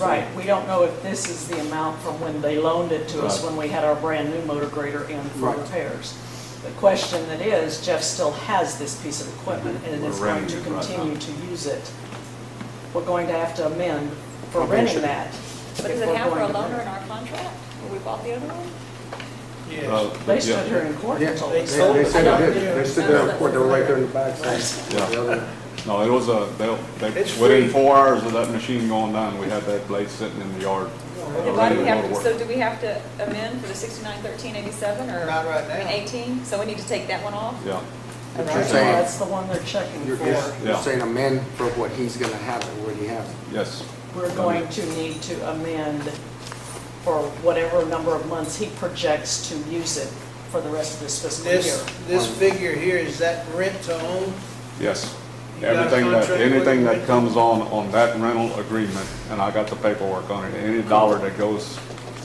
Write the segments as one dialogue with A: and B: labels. A: Right, we don't know if this is the amount from when they loaned it to us,
B: Right.
A: when we had our brand-new motor grader in for
B: Right.
A: repairs. The question that is, Jeff still has this piece of equipment and
B: We're
A: is going to
B: renting it right now.
A: continue to use it. We're going to have to amend for
B: Okay,
A: renting
B: sure.
A: that.
C: But
A: if
C: does it
A: we're
C: have for a
A: going to
C: loaner
A: rent.
C: in our contract? Where we bought the other one?
B: Uh,
D: Yes.
A: They stood here in court
E: Yeah,
A: and told
D: they
E: they,
A: us. that.
D: sold
E: they
D: it.
E: said they did, they stood there in court, they were right there in the back,
B: Yeah.
E: saying, the other-
B: No, it was a, they, they,
D: It's
B: within
D: free.
B: four hours of that machine going down, we had that blade sitting in the yard.
C: Then
B: uh,
C: why
B: ready
C: do we
B: to go to
C: have,
B: work.
C: so do we have to amend for the sixty-nine thirteen eighty-seven or?
D: Not right now.
C: I mean, Eighteen, so we need to take that one off?
B: Yeah,
E: But
A: Right,
E: you're saying,
A: That's the one they're checking
E: you're,
A: for.
E: you're saying amend for what he's gonna have and what he has.
B: yes.
A: We're going to need to amend for whatever number of months he projects to use it for the rest of this fiscal year.
D: This, this figure here, is that rent to own?
B: Yes.
D: You got a
B: Everything that,
D: contract with
B: anything
D: them?
B: that comes on, on that rental agreement, and I got the paperwork on it, any dollar that goes,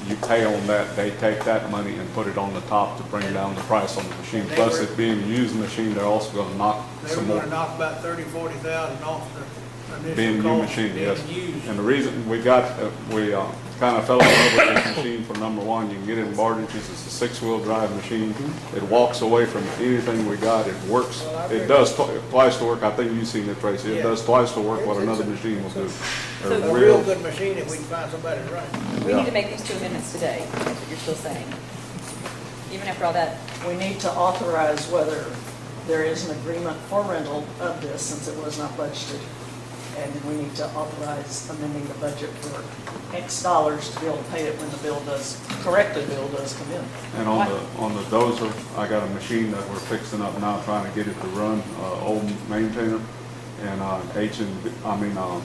B: you pay on that, they take that money and put it on the top to bring down the price on the machine.
D: They
B: Plus
D: were-
B: it being a used machine, they're also gonna knock
D: They were
B: some more.
D: gonna knock about thirty, forty thousand off the
B: Being
D: initial
B: new
D: cost.
B: machine, yes.
D: Being used.
B: And the reason we got, uh, we kind of fell in love with this machine for number one, you can get it in Bardiches, it's a six-wheel drive machine. It walks away from anything we got, it works,
D: Mm-hmm. Well, I
B: it
D: agree.
B: does twi- twice the work, I think you've seen it, Tracy, it
D: Yeah.
B: does twice the work what
D: It's- it's
B: another
D: a-
B: machine will do.
C: So
B: They're
D: A real good machine if we can find somebody to run. it.
C: We
B: Yeah.
C: need to make these two amendments today, that's what you're still saying. Even after all that,
A: We need to authorize whether there is an agreement for rental of this, since it was not budgeted. And we need to authorize amending the budget for X dollars to be able to pay it when the bill does, corrected bill does come in.
B: And on the, on the dozer, I got a machine that we're fixing up now, trying to get it to run, uh, old maintainer. And, uh, H and, I mean, um,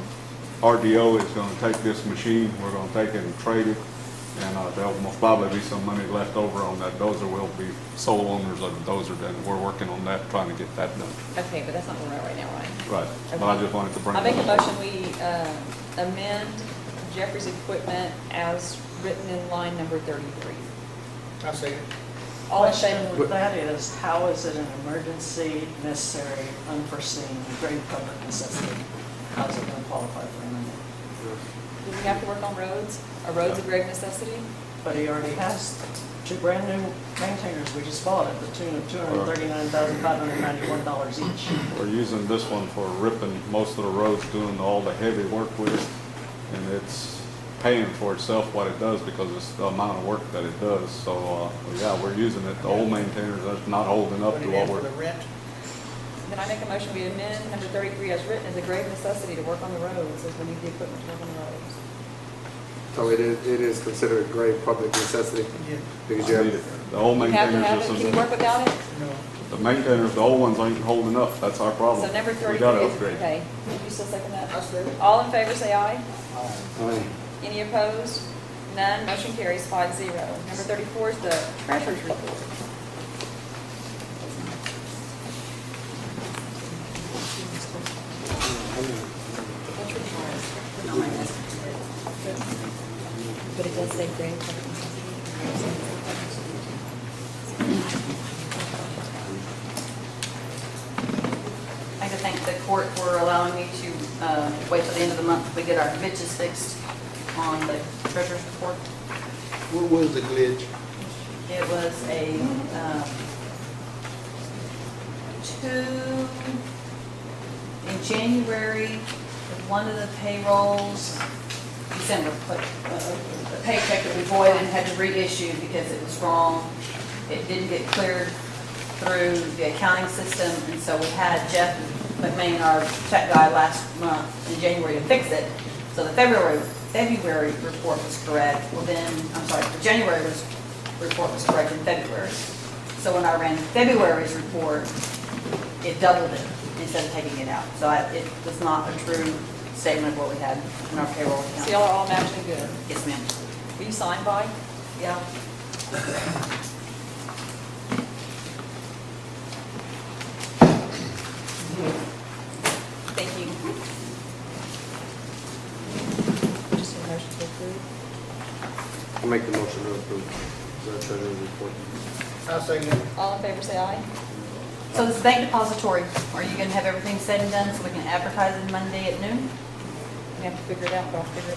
B: RDO is gonna take this machine, we're gonna take it and trade it. And, uh, there'll most probably be some money left over on that dozer, we'll be sole owners of the dozer, then we're working on that, trying to get that done.
C: okay, but that's not where we're at right now, right?
B: Right, but I just wanted to bring.
C: I make a
B: that up.
C: motion, we uh, amend Jeffrey's equipment as written in line number thirty-three.
D: I see it.
C: All in
A: Question
C: favor?
A: with that is, how is it an emergency, necessary, unforeseen, grave public necessity? How is it going to qualify for amendment?
C: Do we have to work on roads? Are roads a grave necessity?
A: But he already has two brand-new maintainers we just bought at the tune of $239,591 each.
B: We're using this one for ripping most of the roads, doing all the heavy work with it, and it's paying for itself what it does because it's the amount of work that it does. So, uh, yeah, we're using it, the old maintainers, that's not holding up
D: Put
B: to
D: it
B: what
D: in for the
B: we're,
D: rent.
C: Then I make a motion, we amend number thirty-three as written as a grave necessity to work on the roads, as we need the equipment to work on the roads.
E: So it is, it is considered a grave public necessity,
D: Yeah,
E: because you
B: I need
E: have,
B: it. The old
C: You have to
B: maintainers,
C: have it,
B: this
C: can you work
B: is-
C: without it?
D: no.
B: the maintainers, the old ones ain't holding up, that's our problem.
C: So number
B: We
C: thirty-three
B: gotta
C: is,
B: Oh, upgrade.
C: okay, you still second
D: I
C: that?
D: see it.
C: All in favor, say aye.
E: I mean,
C: Any opposed? None, motion carries five zero. Number thirty-four is the treasurer's report. That's your part. Not mine, that's- But it does say grave public necessity.
F: I'd like to thank the court for allowing me to uh, wait till the end of the month to get our glitches fixed on the treasurer's report.
E: What was the glitch?
F: It was a um, uh, two, in January, one of the payrolls, December, but uh, a paycheck that we voided and had to reissue because it was wrong. It didn't get cleared through the accounting system, and so we had Jeff McMahon, our check guy, last month in January to fix it. So the February, February report was correct, well then, I'm sorry, the January was, report was correct in February. So when I ran February's report, it doubled it instead of taking it out. So I- it was not a true statement of what we had in our payroll
C: So y'all
F: account.
C: are all matching good.
F: Yes, ma'am.
C: Will you sign by?
F: Yeah.
C: Thank you. Just a motion to approve.
E: I make the motion to approve, the treasurer's report.
D: I see it.
C: All in favor, say aye.
F: So this bank depository, are you going to have everything said and done so we can advertise it Monday at noon?
C: We have to figure it out, but I'll figure it